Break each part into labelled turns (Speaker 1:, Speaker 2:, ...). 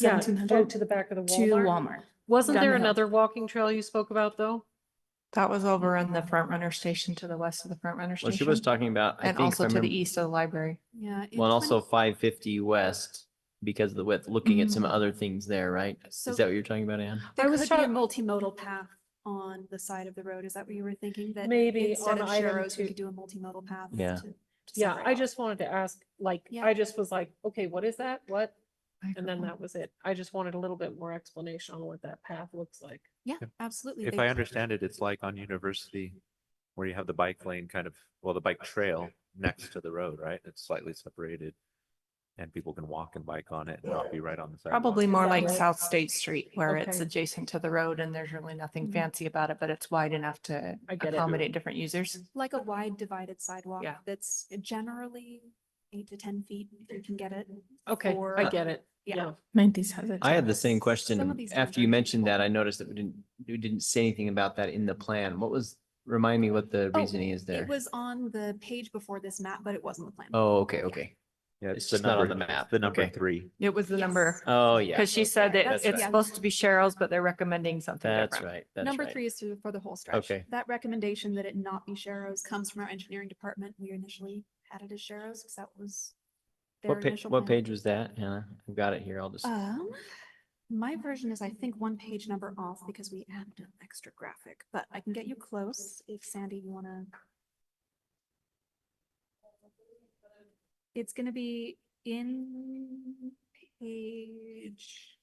Speaker 1: Yeah,
Speaker 2: seventeen
Speaker 1: go
Speaker 2: hundred
Speaker 1: to the back of the
Speaker 2: to
Speaker 1: Walmart.
Speaker 2: Walmart.
Speaker 3: Wasn't
Speaker 2: Down
Speaker 3: there
Speaker 2: the hill.
Speaker 3: another walking trail you spoke about though?
Speaker 4: That was over on
Speaker 5: Mm-hmm.
Speaker 4: the front runner station to the west of the front runner
Speaker 6: Well,
Speaker 4: station.
Speaker 6: she was talking about, I
Speaker 4: And
Speaker 6: think, if I
Speaker 4: also to the
Speaker 5: E,
Speaker 6: remember-
Speaker 4: east of the library.
Speaker 5: Yeah. in
Speaker 6: well, and also
Speaker 5: 20
Speaker 6: five fifty west because of the width, looking at some other things there, right?
Speaker 5: Mm. So
Speaker 6: Is that what you're talking about, Anne?
Speaker 5: there
Speaker 3: I was
Speaker 5: could be a
Speaker 3: talking-
Speaker 5: multimodal path on the side of the road. Is that what you were thinking? That
Speaker 1: Maybe
Speaker 5: instead
Speaker 1: on
Speaker 5: of
Speaker 1: item
Speaker 5: Sharrow's, we
Speaker 1: two.
Speaker 5: could do a multimodal path?
Speaker 6: Yeah.
Speaker 5: to- to
Speaker 1: Yeah,
Speaker 5: separate
Speaker 1: I
Speaker 5: off.
Speaker 1: just wanted to ask, like,
Speaker 5: Yeah.
Speaker 1: I just was like, okay, what is that? What?
Speaker 4: I
Speaker 1: And then
Speaker 4: forgot.
Speaker 1: that was it. I just wanted a little bit more explanation on what that path looks like.
Speaker 5: Yeah,
Speaker 7: If-
Speaker 5: absolutely.
Speaker 7: If
Speaker 5: They-
Speaker 7: I understand it, it's like on University where you have the bike lane kind of, well, the bike trail next to the road, right? It's slightly separated. And people can walk and bike on it and not be right on the sidewalk.
Speaker 4: Probably more
Speaker 1: that
Speaker 4: like
Speaker 1: right?
Speaker 4: South State Street where it's
Speaker 1: Okay.
Speaker 4: adjacent to the road and there's really nothing
Speaker 5: Mhm.
Speaker 4: fancy about it, but it's wide enough to
Speaker 1: I get it.
Speaker 4: accommodate different users.
Speaker 5: Like a wide divided sidewalk
Speaker 4: Yeah.
Speaker 5: that's generally eight to ten feet, if you can get it.
Speaker 1: Okay, I
Speaker 5: for-
Speaker 1: get it.
Speaker 5: yeah.
Speaker 1: Yeah.
Speaker 4: Mandy's has it.
Speaker 6: I had the
Speaker 5: Some
Speaker 6: same
Speaker 5: of
Speaker 6: question.
Speaker 5: these
Speaker 6: After
Speaker 5: things
Speaker 6: you
Speaker 5: are
Speaker 6: mentioned that,
Speaker 5: helpful.
Speaker 6: I noticed that we didn't, we didn't say anything about that in the plan. What was, remind me what the
Speaker 5: Oh,
Speaker 6: reasoning is there?
Speaker 5: It was on the page before this map, but it wasn't the plan.
Speaker 6: Oh, okay, okay.
Speaker 7: Yeah,
Speaker 6: It's
Speaker 7: the
Speaker 6: just not on
Speaker 7: number-
Speaker 6: the map.
Speaker 7: The number
Speaker 6: Okay.
Speaker 7: three.
Speaker 4: It was the number,
Speaker 5: Yes.
Speaker 6: Oh, yeah.
Speaker 4: because she said
Speaker 6: okay,
Speaker 4: that
Speaker 6: that's
Speaker 4: it's
Speaker 6: right.
Speaker 5: yeah.
Speaker 4: supposed to be Cheryl's, but they're recommending something
Speaker 6: That's
Speaker 4: different.
Speaker 6: right. That's
Speaker 5: Number
Speaker 6: right.
Speaker 5: three is through for the whole stretch.
Speaker 6: Okay.
Speaker 5: That recommendation that it not be Sharrow's comes from our engineering department. We initially had it as Sharrow's because that was their
Speaker 6: What pa-
Speaker 5: initial.
Speaker 6: what
Speaker 5: plan.
Speaker 6: page was that, Hannah? I've got it here. I'll just,
Speaker 5: Um, my version is, I think, one page number off because we added an extra graphic, but I can get you close if Sandy, you wanna. It's gonna be in page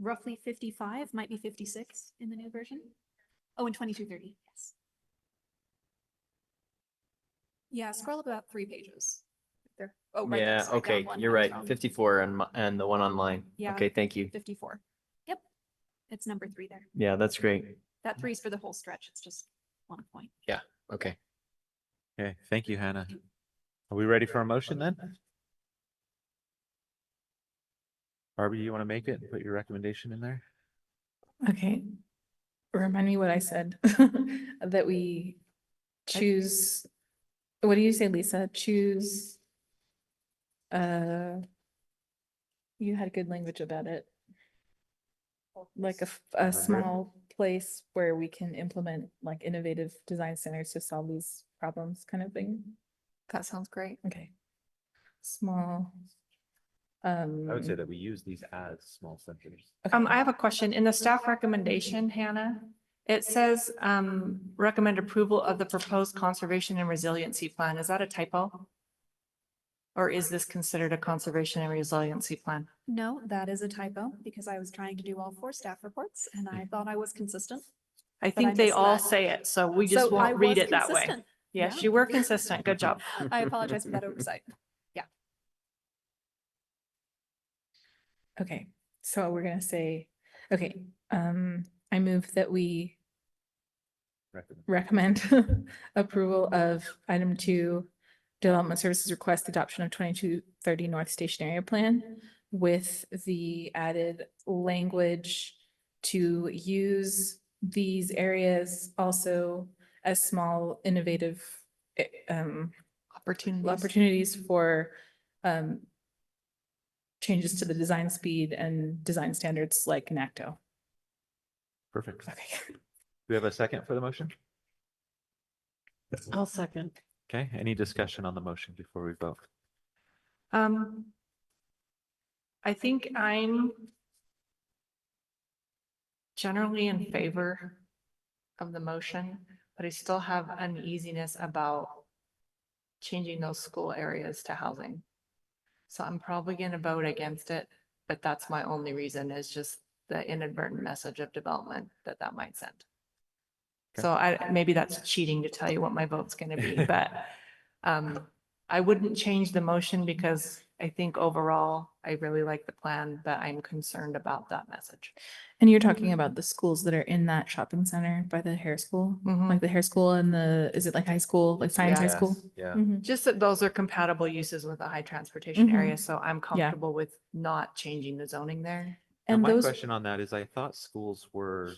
Speaker 5: roughly fifty-five, might be fifty-six in the new version. Oh, and twenty-two thirty, yes. Yeah, scroll up about three pages. There. Oh, right. there,
Speaker 6: yeah,
Speaker 5: sorry, down
Speaker 6: okay,
Speaker 5: one
Speaker 6: you're
Speaker 5: page
Speaker 6: right.
Speaker 5: from-
Speaker 6: Fifty-four and, my- and the one online.
Speaker 5: Yeah.
Speaker 6: Okay, thank you.
Speaker 5: 54. Yep. It's number three there.
Speaker 6: Yeah, that's great.
Speaker 5: That three's for the whole stretch. It's just one point.
Speaker 6: Okay.
Speaker 7: Okay, thank you, Hannah. Are we ready for a motion then? Barbie, you want to make it and put your recommendation in there?
Speaker 2: Okay. Remind me what I said, that we choose, what do you say, Lisa? Choose. Uh. You had good language about it. Like a, f- a
Speaker 7: Remember it?
Speaker 2: small place where we can implement like innovative design centers to solve these problems kind of thing.
Speaker 4: That sounds great.
Speaker 2: Okay. Small. Um.
Speaker 7: I would say that we use these as small centers.
Speaker 4: Um,
Speaker 2: okay.
Speaker 4: I have a question. In the staff recommendation, Hannah, it says, um, recommend approval of the proposed conservation and resiliency plan. Is that a typo? Or is this considered a conservation and resiliency plan?
Speaker 5: No, that is a typo because I was trying to do all four staff reports and I
Speaker 4: Mm.
Speaker 5: thought I was consistent.
Speaker 4: I
Speaker 5: I
Speaker 4: think they
Speaker 5: missed
Speaker 4: all
Speaker 5: that.
Speaker 4: say it, so we
Speaker 5: So
Speaker 4: just
Speaker 5: I
Speaker 4: won't read
Speaker 5: was
Speaker 4: it that way.
Speaker 5: consistent.
Speaker 4: Yes,
Speaker 5: Yeah.
Speaker 4: you were consistent. Good job.
Speaker 5: I apologize for that oversight.
Speaker 2: Okay, so we're gonna say, okay, um, I move that we
Speaker 7: Recommend.
Speaker 2: recommend approval of item two, Development Services Request Adoption of twenty-two thirty North Station Area Plan with the added language to use these areas also as small innovative eh, um,
Speaker 4: Opportunities.
Speaker 2: opportunities for um changes to the design speed and design standards like NACTO.
Speaker 7: Perfect. Do
Speaker 2: Okay.
Speaker 7: we have a second for the motion?
Speaker 1: I'll second.
Speaker 7: Okay, any discussion on the motion before we vote?
Speaker 4: Um, I think I'm generally in favor of the motion, but I still have uneasiness about changing those school areas to housing. So I'm probably going to vote against it, but that's my only reason is just the inadvertent message of development that that might send.
Speaker 7: Okay.
Speaker 4: So I, maybe that's cheating to tell you what my vote's going to be, but um, I wouldn't change the motion because I think overall, I really like the plan, but I'm concerned about that message.
Speaker 2: And you're talking about the schools that are in that shopping center by the hair school, like the hair school and the, is it like high school, like science high
Speaker 4: Yeah.
Speaker 2: school?
Speaker 7: Yeah.
Speaker 2: Mhm.
Speaker 4: Just that those are compatible uses with a high transportation area, so I'm comfortable with not changing the zoning there.
Speaker 7: Now,
Speaker 2: And
Speaker 7: my
Speaker 2: those,
Speaker 7: question on that is I thought schools were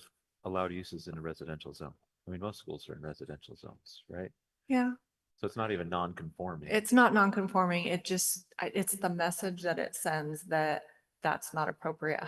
Speaker 7: allowed uses in a residential zone. I mean, most schools are in residential zones, right?
Speaker 4: Yeah.
Speaker 7: So it's not even non-conforming.
Speaker 4: It's not non-conforming, it just, I- it's the message that it sends that that's not appropriate